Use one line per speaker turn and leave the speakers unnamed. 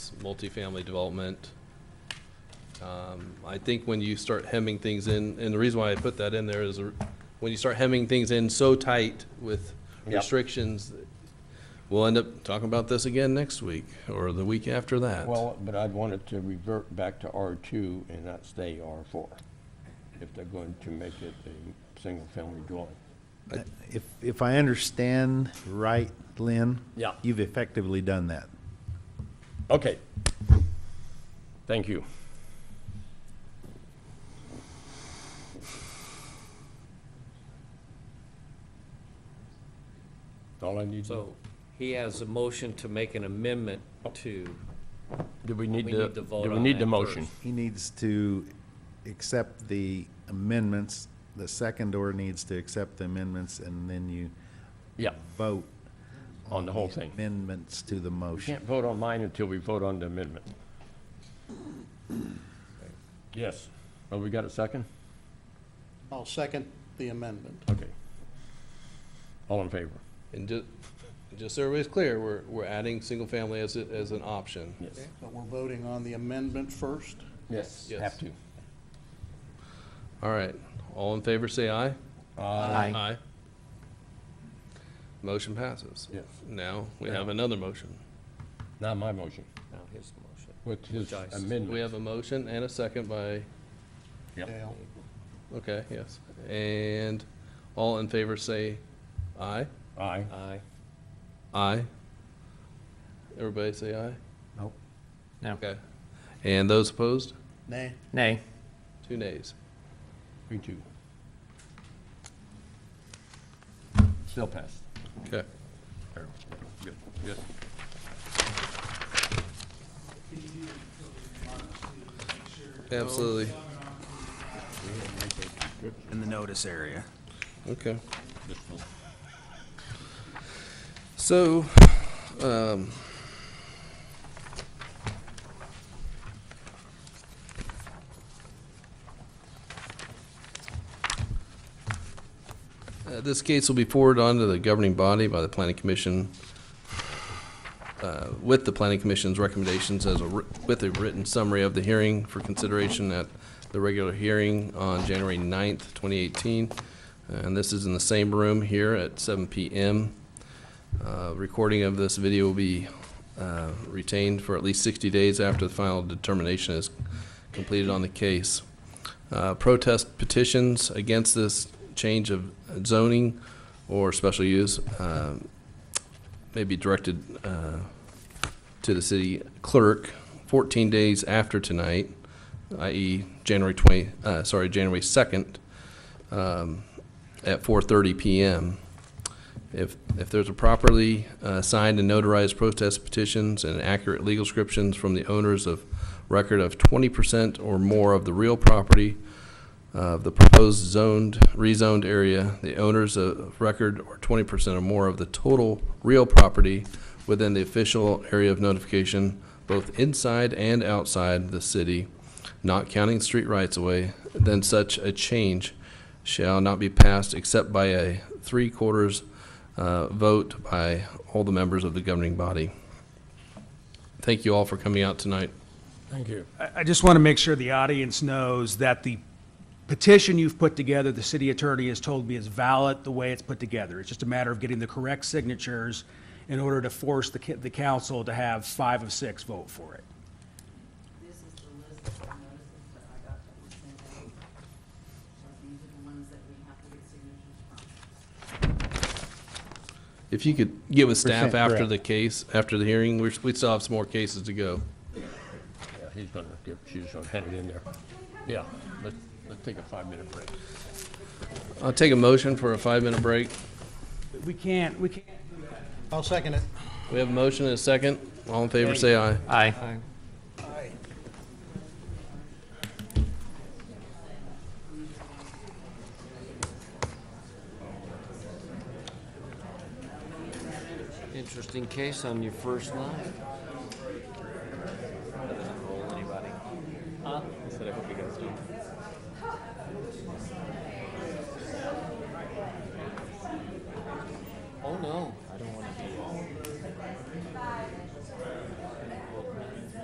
lots, multifamily development. Um, I think when you start hemming things in, and the reason why I put that in there is uh, when you start hemming things in so tight with
Yep.
restrictions, we'll end up talking about this again next week or the week after that.
Well, but I'd want it to revert back to R2 and not stay R4, if they're going to make it a single-family dwelling.
If, if I understand right, Lynn?
Yeah.
You've effectively done that.
Okay. Thank you. All I need,
So he has a motion to make an amendment to,
do we need
we
to,
need to vote
do we
on
need
that
the motion?
first.
He needs to accept the amendments, the second or needs to accept the amendments, and then you
Yeah,
vote
on the whole thing.
amendments to the
We
motion.
can't vote on mine until we vote on the amendment. Yes. Oh, we got a second?
I'll second the amendment.
Okay. All in favor?
And ju- just so everybody's clear, we're, we're adding single-family as, a- as an option.
Yes.
But we're voting on the amendment first.
Yes.
Yes.
Have to.
All right, all in favor, say aye.
Uh, Aye.
Aye. Motion passes.
Yes.
Now, we have another motion.
Not my motion,
now his motion.
with his
Joyce.
We
amendment.
have a motion and a second by,
Yep.
Dale,
okay, yes. And all in favor, say aye.
Aye.
Aye.
Aye. Everybody say aye?
Nope.
No.
Okay. And those opposed?
nay.
Nay.
Two nays.
Me too. Still passed.
Okay.
There. Good, good.
Absolutely.
in the notice area.
Okay. So, um, uh, this case will be forwarded on to the governing body by the planning commission, uh, with the planning commission's recommendations as a, wri- with a written summary of the hearing for consideration at the regular hearing on January 9th, twenty eighteen. And this is in the same room here at seven PM. Uh, Recording of this video will be uh, retained for at least 60 days after the final determination is completed on the case. Uh, Protest petitions against this change of zoning or special use um, may be directed uh, to the city clerk 14 days after tonight, i.e. January 20, uh, sorry, January 2nd, um, at 4:30 PM. If, if there's a properly uh, signed and notarized protest petitions and accurate legal descriptions from the owners of record of twenty percent or more of the real property of the proposed zoned, rezoned area, the owners of record or twenty percent or more of the total real property within the official area of notification, both inside and outside the city, not counting street rights away, then such a change shall not be passed except by a three quarters uh, vote by all the members of the governing body. Thank you all for coming out tonight.
Thank you.
I I just want to make sure the audience knows that the petition you've put together, the city attorney has told me is valid the way it's put together. It's just a matter of getting the correct signatures in order to force the, ca- the council to have five of six vote for it.
This is the list of the notices that I got that was sent out. So these are the ones that we have to get signatures from.
If you could give a staff
Percent
after
correct.
the case, after the hearing, we're- we still have some more cases to go.
Yeah, he's gonna, give- she's gonna hand it in there. Yeah, let's, let's take a five-minute break.
I'll take a motion for a five-minute break.
We can't, we can't
I'll second it.
We have a motion and a second. All in favor, say aye.
Aye.
Interesting case on your first line.